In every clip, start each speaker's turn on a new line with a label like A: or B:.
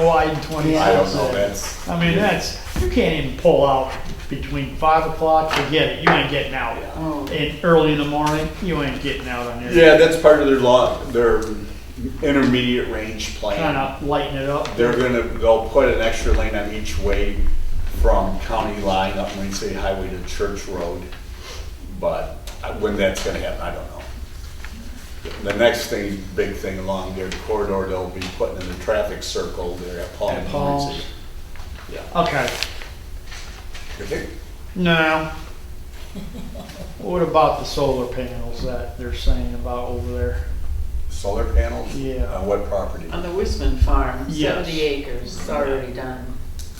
A: wide twenty-six.
B: I don't know,
A: is.
B: that's,
A: I mean, that's, you can't even pull out between five o'clock, forget it, you ain't getting out.
C: Oh.
A: And early in the morning, you ain't getting out on there.
B: yeah, that's part of their law, their intermediate range
A: Kind
B: plan.
A: of lighten it up.
B: They're gonna, they'll put an extra lane on each way from county line up Marine City Highway to Church Road. But I- when that's gonna happen, I don't know. The next thing, big thing along their corridor, they'll be putting in the traffic circle there at Paul. and
A: At
B: Marine
A: Paul's.
B: City. Yeah.
A: Okay,
B: I think
A: now, what about the solar panels that they're saying about over there?
B: Solar panels?
A: Yeah.
B: On what property?
C: On the Wisman Farm,
A: Yes.
C: seventy acres, it's already done,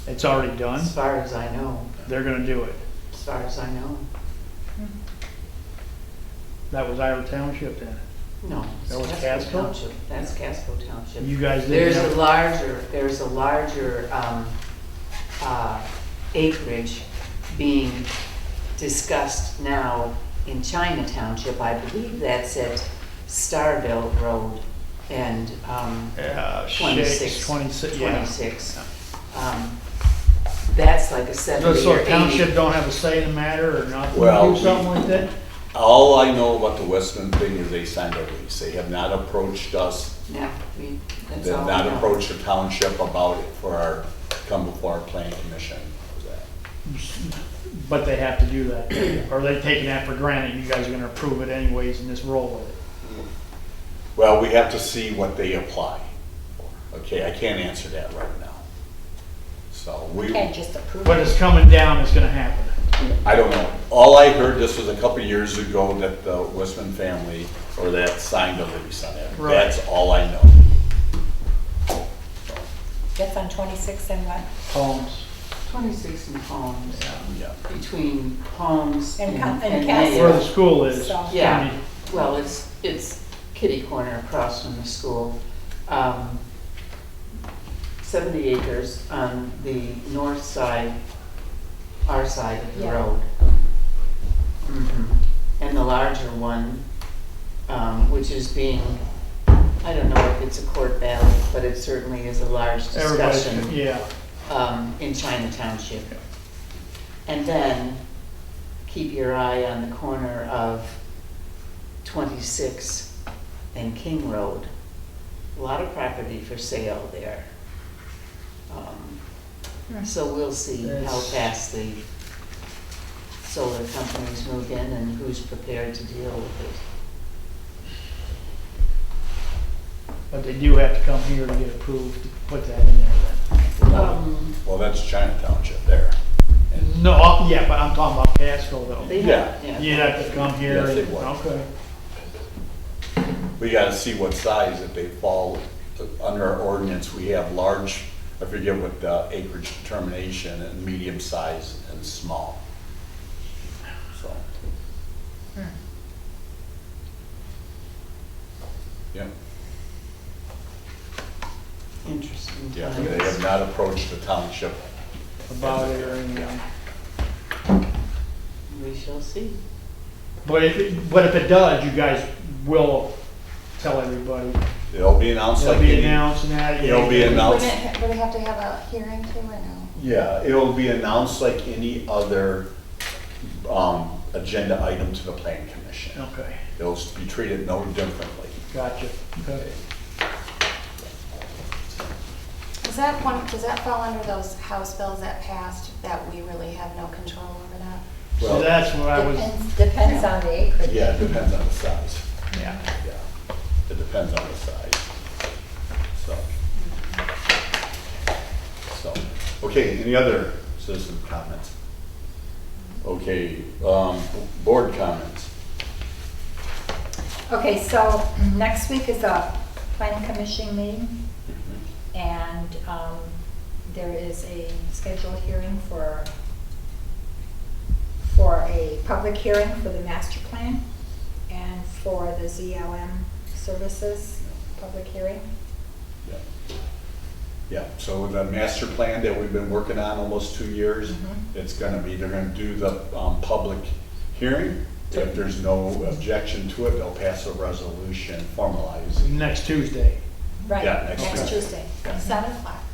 A: It's already done,
C: as far as I know,
A: they're gonna do it.
C: as far as I know.
A: That was Iowa Township then.
C: No. it's
A: That was Casco?
C: Township. That's Casco Township.
A: You guys didn't
C: There's a
A: have,
C: larger, there's a larger um, uh, acreage being discussed now in China Township. I believe that's at Starville Road and um,
A: uh, six,
C: 26.
A: twenty-six, yeah.
C: 26. Um, That's like a
A: So
C: 70 or
A: so township
C: 80.
A: don't have a say in the matter or not,
B: Well,
A: do something like that?
B: All I know about the Westman thing is they signed a lease. They have not approached us.
C: No, we- that's
B: They
C: all
B: have
C: we
B: not
C: know.
B: approached the township about it for our, come before our planning commission. How's that?
A: But they have to do that, or they're taking that for granted, you guys are gonna approve it anyways and just roll with it.
B: Well, we have to see what they apply. for. Okay, I can't answer that right now. So we,
D: Can't just approve
A: But it's
D: it.
A: coming down, it's gonna happen.
B: I don't know. All I heard, this was a couple of years ago, that the Westman family or that signed a lease on it.
A: Right.
B: That's all I know.
D: That's on 26 and what?
A: Homes.
C: 26 in Palms,
B: Yeah.
C: between Palms
D: And
C: and
D: Cal- and
C: and
D: Casco.
A: Where
C: Mayo.
A: the school is.
D: So-
C: Yeah, well, it's, it's kitty corner across from the school. Um, Seventy acres on the north side, our side of the
D: Yeah.
C: road. Mhm. And the larger one, um, which is being, I don't know if it's a court battle, but it certainly is a large
A: Everybody's,
C: discussion
A: yeah,
C: um, in China Township. And then keep your eye on the corner of 26 and King Road. A lot of property for sale there. Um, So we'll see how
A: That's-
C: fast the solar companies move in and who's prepared to deal with it.
A: but they do have to come here to get approved to put that in there then.
C: Um,
B: Well, that's China Township there.
A: No, uh, yeah, but I'm talking about Casco though.
C: they-
B: Yeah.
A: You'd have to come here,
B: Yes,
A: and-
B: they would.
A: okay.
B: We gotta see what size, if they fall under our ordinance, we have large, I forget what the acreage determination, and medium size and small. So.
A: Hmm.
B: Yeah,
C: Interesting.
B: yeah,
C: times.
B: they have not approached the township.
A: About it or anything.
C: We shall see.
A: But if, it- but if it does, you guys will tell everybody.
B: It'll be announced
A: It'll
B: like
A: be
B: any,
A: announced and that.
B: it'll be
E: Would
B: announced.
E: it, would it have to have a hearing too, or no?
B: Yeah, it'll be announced like any other, um, agenda item to the planning commission.
A: Okay,
B: It'll be treated no differently.
A: gotcha. Okay.
E: Does that one, does that fall under those House bills that passed that we really have no control over that?
A: So
B: Well-
A: that's what I was,
D: Depends, depends on the acreage.
B: Yeah, it depends on the size.
A: yeah.
B: Yeah, it depends on the size. So. So, okay, any other citizen comments? Okay, um, board comments.
D: Okay, so next week is a planning commission meeting, and um, there is a scheduled hearing for, for a public hearing for the master plan and for the ZLM services, public hearing.
B: Yeah. Yeah, so the master plan that we've been working on almost two years,
D: Mhm.
B: it's gonna be, they're gonna do the, um, public hearing. If there's no objection to it, they'll pass a resolution formalizing.
A: Next Tuesday.
D: Right,
B: Yeah, next
D: next Tuesday.
E: Seven o'clock.